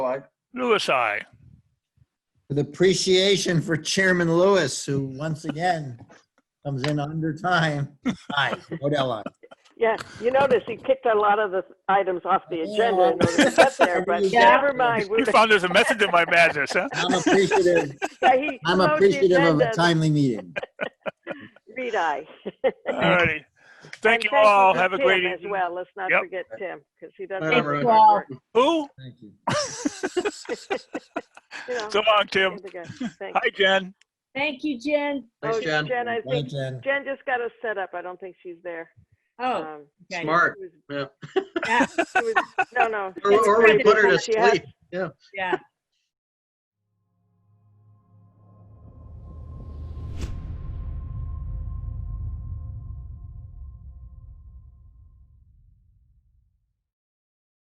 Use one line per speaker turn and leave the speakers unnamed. Louis, I.
with appreciation for Chairman Lewis, who once again comes in under time. Aye, Odell, aye.
Yeah, you notice he kicked a lot of the items off the agenda in order to get there, but
Yeah.
never mind. we
You
were-
found there's a method in my madness, huh?
I'm appreciative,
yeah, he
I'm
wrote the
appreciative of a
agenda,
timely meeting.
Read I.
All righty. Thank
And
you all.
for
Have a great
Tim as
evening.
Well, let's not
Yep.
forget Tim, because he doesn't.
Thank
do
you
good
all.
work,
Who?
Thank you.
you know,
So long, Tim.
he's a good- thanks.
Hi, Jen.
Thank you, Jen.
Oh,
Oh,
Thanks, Jen.
Jen, I
Bye,
think,
Jen.
Jen just got us set up. I don't think she's there.
Oh,
Um,
okay.
Smart.
she was-
Yeah.
Yeah,
she was- No, no.
Or, or we put her to
She has-
sleep.
yeah.